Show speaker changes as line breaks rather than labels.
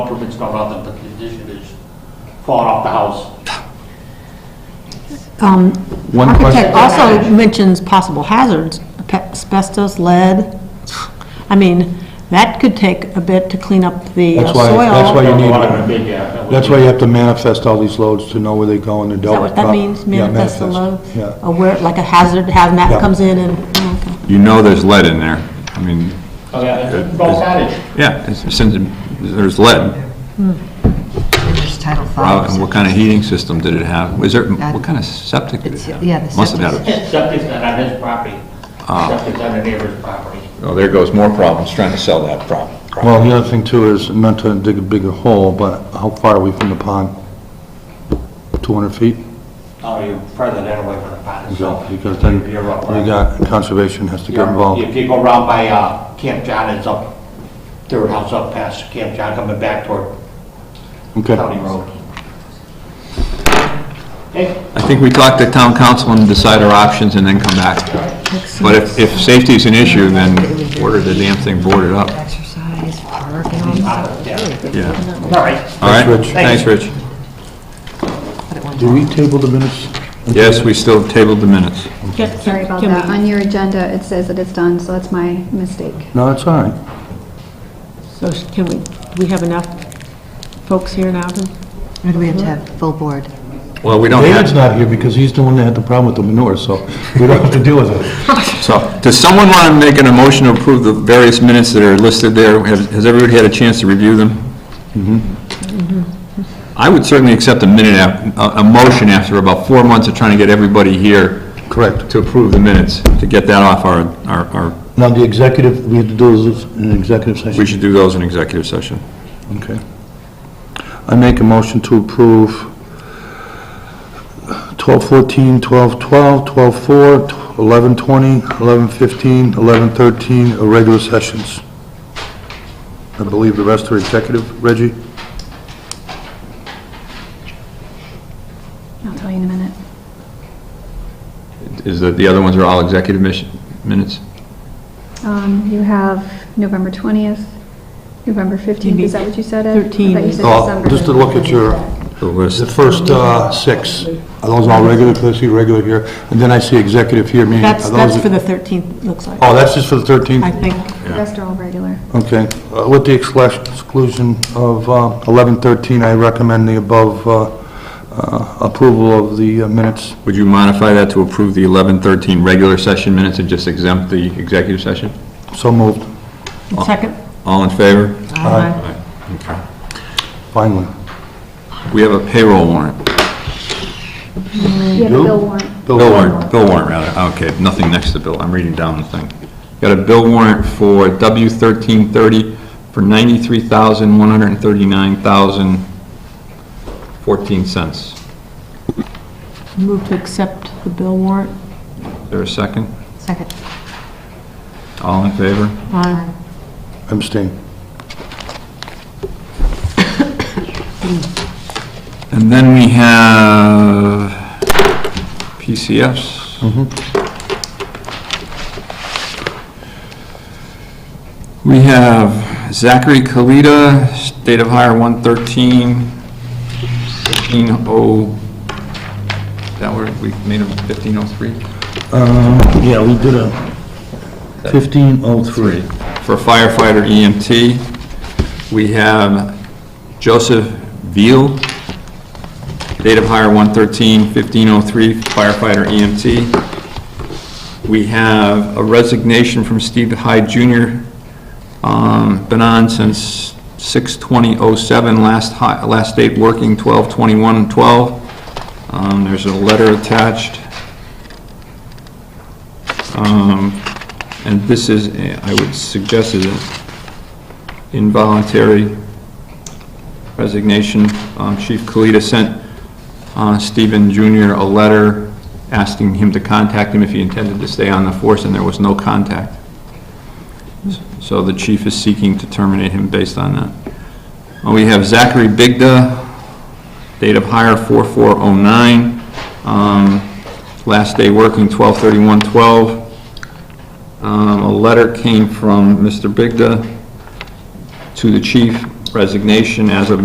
permit's got on them, but the condition is falling off the house.
Um,
One
Architect
question,
also mentions possible hazards, asbestos, lead. I mean, that could take a bit to clean up the uh,
That's why-
soil.
that's why Oh, you need-
Well, I mean, yeah, uh, that would
that's
be-
why you have to manifest all these loads to know where they go and they're
Is that
dealt with.
what that
prop-
means,
Yeah,
manifest the load?
Yeah,
Or where, like a hazard,
Yeah.
hazmat comes in and, oh, okay.
You know there's lead in there. I mean,
Oh, yeah, it's all cottage.
yeah, it's- since there's lead,
It's Title V.
wow, and what kind of heating system did it have? Was there, what kind of septic did it
It's-
have?
yeah, the
Must have had,
septic.
a-
Septic's not on his property,
Ah.
septic's on the neighbor's property.
oh, there goes more problems, trying to sell that problem.
well, the other thing too is, not to dig a bigger hole, but how far are we from the pond? 200 feet?
Oh, you're further that away from the pond itself.
Because then, we
You're up there.
got, conservation has to get involved.
If you go around by uh, Camp John, it's up, third house up past Camp John, coming back toward
Okay.
County Road. Okay,
I think we talk to town council and decide our options and then come back. But if, if safety's an issue, then order the damn thing boarded up.
Exercise, park, and all that.
uh, yeah.
Yeah.
all right.
All right?
Rich.
Thanks, Rich.
Do we table the minutes?
Yes, we still tabled the minutes.
Get-
Sorry about
can
that.
we-
On your agenda, it says that it's done, so that's my mistake.
No, it's all right.
So sh- can we, do we have enough folks here now to?
Or do we have to have full board?
Well, we don't
David's
have,
not here because he's the one that had the problem with the manure, so we don't have to deal with it.
so, does someone want to make an emotion to approve the various minutes that are listed there? Has has everybody had a chance to review them? I would certainly accept a minute, af- a, a motion after about four months of trying to get everybody here
Correct.
to approve the minutes, to get that off our, our, our
Now, the executive, we have to do this in an executive session.
We should do those in executive session.
Okay. I make a motion to approve 1214, 1212, 1204, 1120, 1115, 1113, irregular uh, sessions. I believe the rest are executive, Reggie?
I'll tell you in a minute.
Is that, the other ones are all executive mission, minutes?
Um, You have November 20th, November 15th, is that what you said, Ed? I thought you
13.
said
Oh,
December.
just to look at your,
The list.
the first uh, six. Are those all regular? 'Cause I see regular here, and then I see executive here, meaning...
That's,
are those-
that's for the 13th, looks like,
Oh, that's just for the 13th?
I think.
The rest are all regular.
Okay, uh, with the exclu- exclusion of uh, 1113, I recommend the above uh, uh, approval of the uh, minutes.
Would you modify that to approve the 11:13 regular session minutes and just exempt the executive session?
So moved, Oh.
Second?
All in favor?
Aye. finally.
We have a payroll warrant.
You have a
do?
bill warrant.
Bill warrant, bill warrant, rather. Okay, nothing next to bill. I'm reading down the thing. Got a bill warrant for W1330 for $93,139,014.
Move to accept the bill warrant.
Is there a second?
Second.
All in favor?
Aye.
Abstain.
And then we have PCFs. We have Zachary Kalita, State of Hire 113, 1500, oh, that where we made him 1503?
Yeah, we did a 1503.
For firefighter EMT. We have Joseph Veal, date of hire 1/13/1503, firefighter EMT. We have a resignation from Steve Hyde Jr., um, been on since 6/20/07, last hi, last date working 12/21/12. Um, There's a letter attached. Um, And this is, eh, I would suggest is an involuntary resignation. Um, Chief Kalita sent uh, Stephen Jr. a letter asking him to contact him if he intended to stay on the force, and there was no contact. So the chief is seeking to terminate him based on that. Uh, We have Zachary Bigda, date of hire 4409, um, last day working 12/31/12. Um, A letter came from Mr. Bigda to the chief resignation as of